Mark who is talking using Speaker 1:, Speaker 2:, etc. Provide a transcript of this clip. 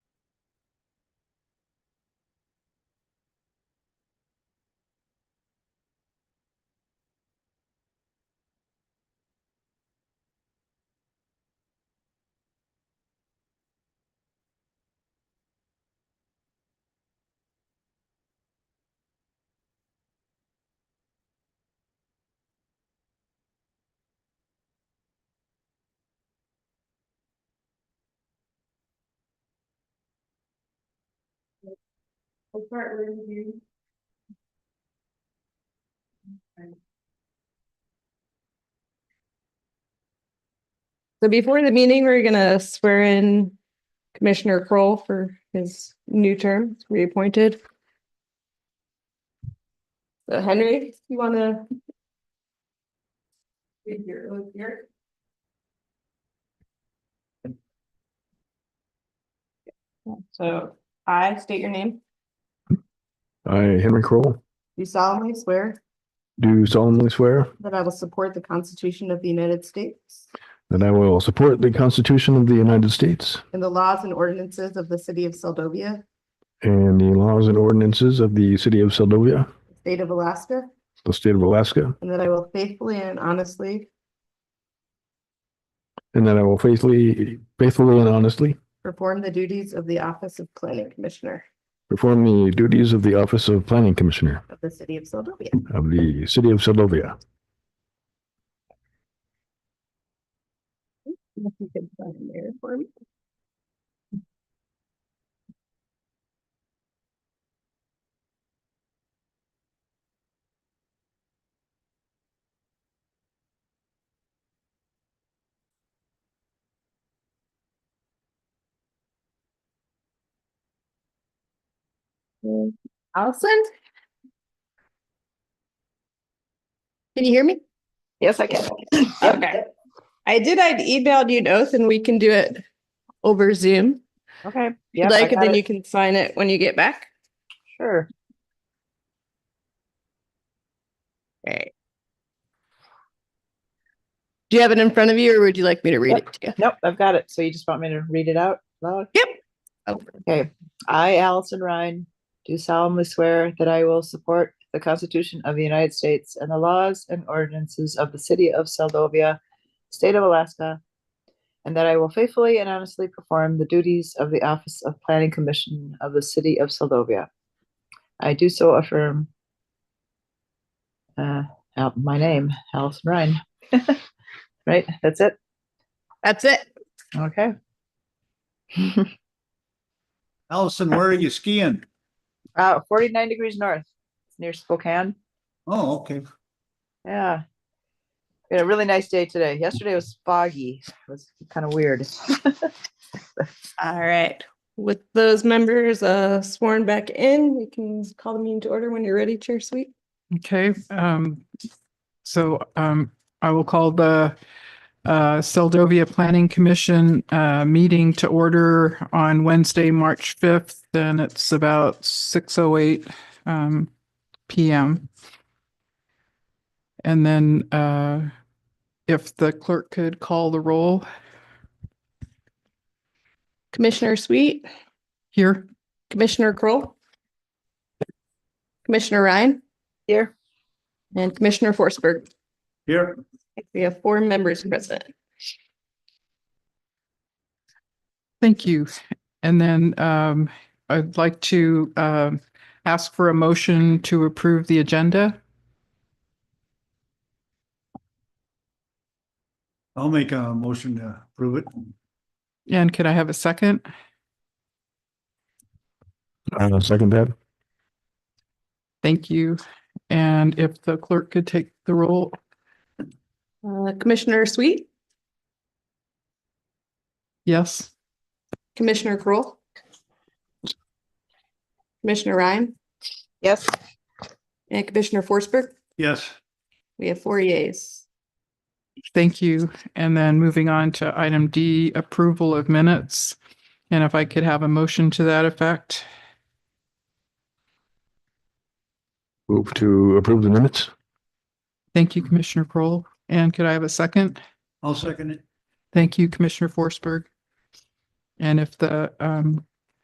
Speaker 1: I'll start with you.
Speaker 2: So before the meeting, we're gonna swear in Commissioner Kroll for his new term, reappointed. So Henry, you wanna,
Speaker 1: With your oath here.
Speaker 2: so I state your name,
Speaker 3: I, Henry Kroll,
Speaker 2: you solemnly swear
Speaker 3: do solemnly swear
Speaker 2: that I will support the Constitution of the United States
Speaker 3: that I will support the Constitution of the United States
Speaker 2: and the laws and ordinances of the city of Seldovia,
Speaker 3: and the laws and ordinances of the city of Seldovia,
Speaker 2: the state of Alaska,
Speaker 3: the state of Alaska,
Speaker 2: and that I will faithfully and honestly
Speaker 3: and that I will faithfully, faithfully and honestly
Speaker 2: perform the duties of the Office of Planning Commissioner
Speaker 3: perform the duties of the office of planning commissioner
Speaker 2: of the city of Seldovia.
Speaker 3: of the city of Seldovia.
Speaker 2: If you could sign there for me. Mm, Allison? Can you hear me? Yes, I can. Okay. I did, I'd emailed you an oath and we can do it over Zoom.
Speaker 4: Okay.
Speaker 2: if
Speaker 4: Yeah.
Speaker 2: you Like, and then you can sign it when you get back.
Speaker 4: Sure.
Speaker 2: Okay. Do you have it in front of you or would you like me to read
Speaker 4: Yep.
Speaker 2: it to you?
Speaker 4: Nope, I've got it. So you just want me to read it out loud?
Speaker 2: Yep. Oh.
Speaker 4: Okay. I, Allison Ryan, do solemnly swear that I will support the Constitution of the United States and the laws and ordinances of the city of Seldovia, state of Alaska, and that I will faithfully and honestly perform the duties of the Office of Planning Commission of the city of Seldovia. I do so affirm uh, Al- my name, Allison Ryan. Right? That's it?
Speaker 2: That's it.
Speaker 4: Okay.
Speaker 5: Allison, where are you skiing?
Speaker 4: Uh, forty-nine degrees north, near Spokane.
Speaker 5: Oh, okay.
Speaker 4: Yeah. We had a really nice day today. Yesterday was foggy. It was kind of weird.
Speaker 2: All right. With those members uh, sworn back in, we can call the meeting to order when you're ready, Chair Sweet.
Speaker 6: Okay, um, so, um, I will call the, uh, Seldovia Planning Commission, uh, meeting to order on Wednesday, March fifth, and it's about six oh eight, um, PM. And then, uh, if the clerk could call the roll
Speaker 2: Commissioner Sweet,
Speaker 6: here.
Speaker 2: Commissioner Kroll, Commissioner Ryan,
Speaker 4: Here,
Speaker 2: and Commissioner Forsberg.
Speaker 5: Here,
Speaker 2: We have four members present.
Speaker 6: Thank you. And then um, I'd like to um, ask for a motion to approve the agenda.
Speaker 5: I'll make a motion to approve it.
Speaker 6: And could I have a second?
Speaker 3: Uh, second that,
Speaker 6: Thank you. And if the clerk could take the roll,
Speaker 2: Uh, Commissioner Sweet,
Speaker 6: yes?
Speaker 2: Commissioner Kroll. Commissioner Ryan
Speaker 4: yes,
Speaker 2: and Commissioner Forsberg.
Speaker 5: Yes,
Speaker 2: We have four yeas.
Speaker 6: Thank you. And then moving on to item D, approval of minutes. And if I could have a motion to that effect.
Speaker 3: move to approve the minutes.
Speaker 6: Thank you, Commissioner Kroll. And could I have a second?
Speaker 5: I'll second it.
Speaker 6: Thank you, Commissioner Forsberg. And if the um,